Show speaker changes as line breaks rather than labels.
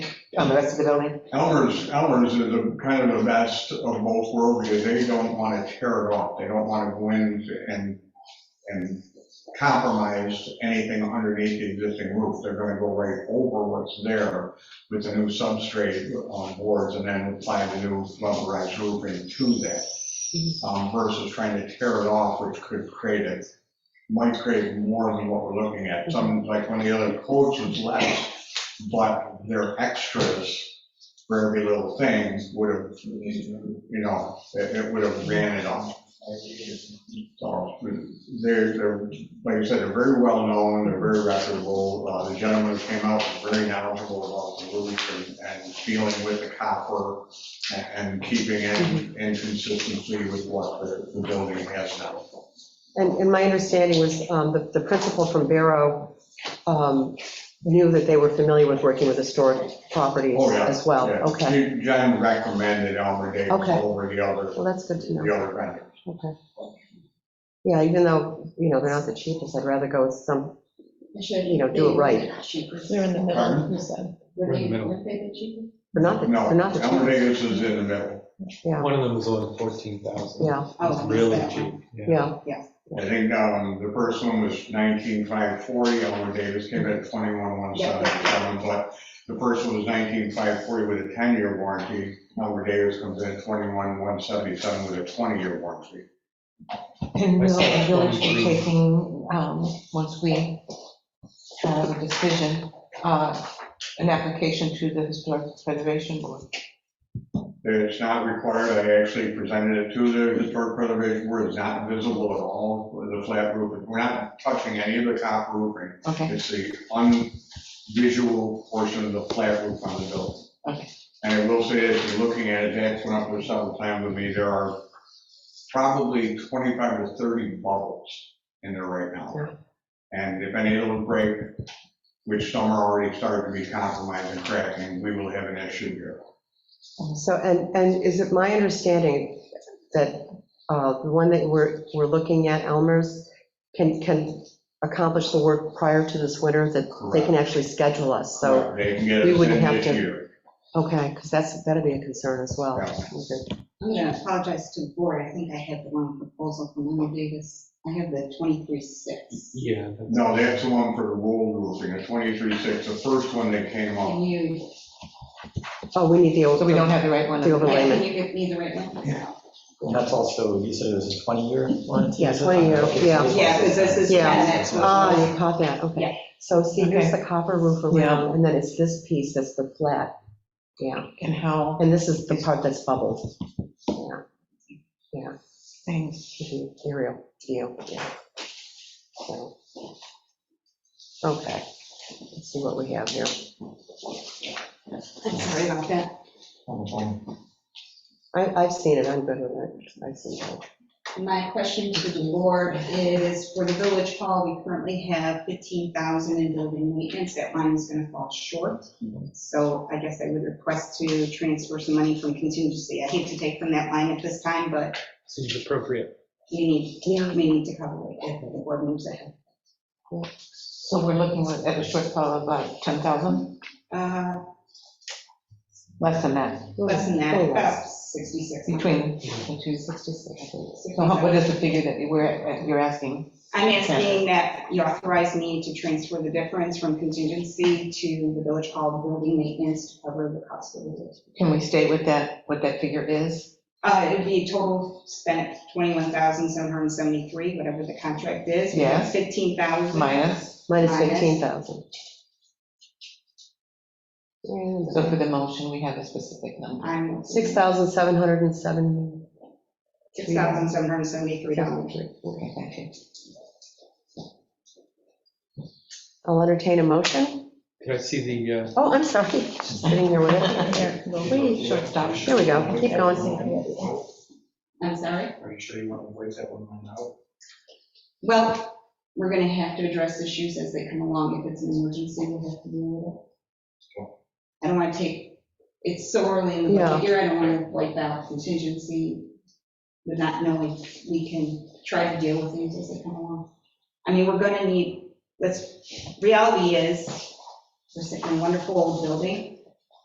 on the rest of the building?
Elmer's, Elmer's is a kind of the best of both worlds, because they don't want to tear it off, they don't want to go in and, and compromise anything underneath the existing roof, they're going to go right over what's there with the new substrate on boards, and then apply the new rubberized roofing to that, um, versus trying to tear it off, which could create it, might create more than what we're looking at, some, like one of the other quotes was less, but they're extras for every little thing would have, you know, it it would have ran it off. So they're, they're, like I said, they're very well-known, they're very reputable. Uh, The gentleman who came out was very knowledgeable about the roof and- and dealing with the copper and- and keeping
Mm-hmm.
it in consistency with what the the building has now.
And, and my understanding was um, the, the principal from Barrow um, knew that they were familiar with working with historic properties
Oh, yeah,
as well.
Yeah.
Okay,
He- John recommended Elmer Davis
Okay.
over the other,
well, that's good to know.
the other vendor.
Okay. Yeah, even though, you know, they're not the cheapest, I'd rather go with some, you know, do it right.
They're in the middle,
Um,
Pardon?
you said.
We're in the middle.
They're not, the-
No,
they're not the
Elmer
cheapest.
Davis is in the middle.
Yeah,
One of them was only 14,000.
Yeah.
Oh, I
It's
missed
really
that one.
cheap.
yeah,
I think um, the first one was 19,540, Elmer Davis came in at 21,177, but the first one was 19,540 with a 10-year warranty, Elmer Davis comes in at 21,177 with a 20-year warranty.
And will the
Myself,
village
23.
be taking, um, once we have a decision, uh, an application to the Historic Preservation Board?
It's not required, I actually presented it to the Historic Preservation Board, it's not visible at all, the flat roof, we're not touching any of the top roofing,
Okay,
It's the unvisual portion of the flat roof on the building.
Okay.
And I will say, if you're looking at it, Jack's went up there several times with me, there are probably 25 to 30 bubbles in there right now. And if any of them break, which some are already starting to be compromised and cracking, we will have an issue here.
so, and, and is it my understanding that uh, the one that we're, we're looking at, Elmer's, can, can accomplish the work prior to this winter, that they can actually schedule us, so.
They can get
we
us in
wouldn't have
this
to-
year.
Okay, because that's, that'd be a concern as well.
Yeah.
Okay.
I'm going to apologize to the board, I think I had the wrong proposal from Lynn Davis. I have the 23.6.
Yeah. that's-
No, that's the one for the roll roofing, a 23-6, the first one that came up.
Can you,
Oh, we need the.
so we don't have the right one.
The overlay.
can you give me the right one?
And that's also, you said it was a 20-year warranty?
Yeah,
is it?
20 year,
Okay, so
yeah.
it's-
Yeah, because this is.
Yeah.
and that's what-
Ah, you caught that,
Yeah.
okay. So see, here's the copper roof
Yeah.
around, and then it's this piece that's the flat. Yeah,
And how
and this is the part that's bubbled.
things,
Mhm, Aerial view, yeah. So, Okay, let's see what we have here.
I'm sorry about that.
on the one.
I, I've seen it, I'm good with it, I've seen it.
My question to the board is, for the village hall, we currently have 15,000 in building maintenance, that line is going to fall short. So I guess I would request to transfer some money from contingency. I hate to take from that line at this time, but
Seems appropriate.
we need,
Yeah,
we need to cover it if the board moves ahead.
so we're looking at a shortfall of about 10,000,
Uh,
less than that,
Less than that,
Oh,
about 66.
between 266. So how- what is the figure that you were, you're asking?
I'm asking that you authorize me to transfer the difference from contingency to the village hall building maintenance to cover the cost of the roof.
Can we state what that, what that figure is?
Uh, it'd be a total spent 21,773, whatever the contract is. We have 15,000.
Minus,
minus
Minus.
15,000. And-
so for the motion, we have a specific number.
I'm
$6,707.
$6,773.
Okay, thank you.
I'll entertain a motion.
Can I see the, uh,
Oh, I'm sorry, just sitting here with it.
Here, we'll-
Please,
Shortstop.
Here we go, keep going.
I'm sorry?
are you sure you want to wait that one line out?
Well, we're going to have to address issues as they come along. If it's an emergency, we'll have to deal with it. I don't want to take, it's so early in the
Yeah.
budget year, I don't want to wipe out contingency with not knowing we can try to deal with things as they come along. I mean, we're going to need, let's, reality is, we're sitting in a wonderful old building.